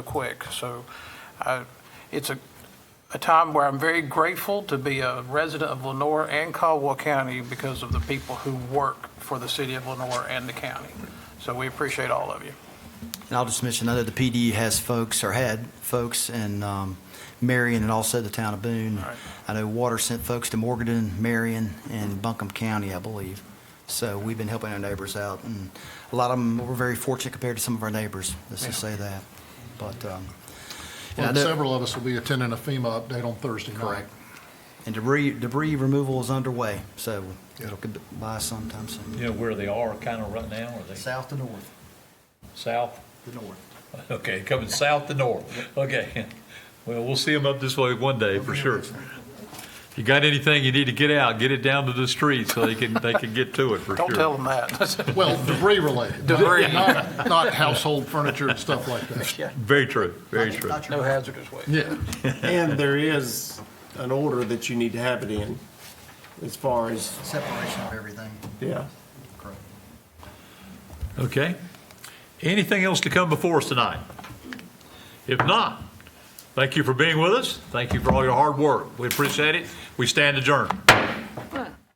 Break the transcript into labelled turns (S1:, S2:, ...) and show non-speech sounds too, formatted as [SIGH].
S1: quick. So I- it's a, a time where I'm very grateful to be a resident of Lenore and Caldwell County because of the people who work for the city of Lenore and the county. So we appreciate all of you.
S2: And I'll just mention, I know the PD has folks, or had folks in um, Marion and also the town of Boone.
S1: Right.
S2: I know Water sent folks to Morganton, Marion, and Buncombe County, I believe. So we've been helping our neighbors out, and a lot of them, we're very fortunate compared to some of our neighbors, let's just say that. But, um, and I
S3: Well,
S2: know-
S3: several of us will be attending a FEMA update on Thursday night.
S2: and debris, debris removal is underway, so it'll
S3: Yeah.
S2: get by sometime soon.
S4: You know where they are kind of right now? Are they
S2: South to north,
S4: south?
S2: the north.
S4: Okay, coming south to north. Okay. Well, we'll see them up this way one day for sure. You got anything you need to get out, get it down to the street so they can, they can get to it for sure.
S1: Don't tell them that.
S3: Well, debris related. not-
S1: Debris.
S3: Not not household furniture and stuff like that.
S4: Very true, very true.
S2: Not
S1: [LAUGHS]
S2: your-
S1: No hazardous waste.
S3: Yeah.
S5: And there is an order that you need to have it in, as far as,
S2: Separation of everything,
S5: yeah.
S2: correct.
S4: Okay. Anything else to come before us tonight? If not, thank you for being with us. Thank you for all your hard work. We appreciate it. We stand adjourned.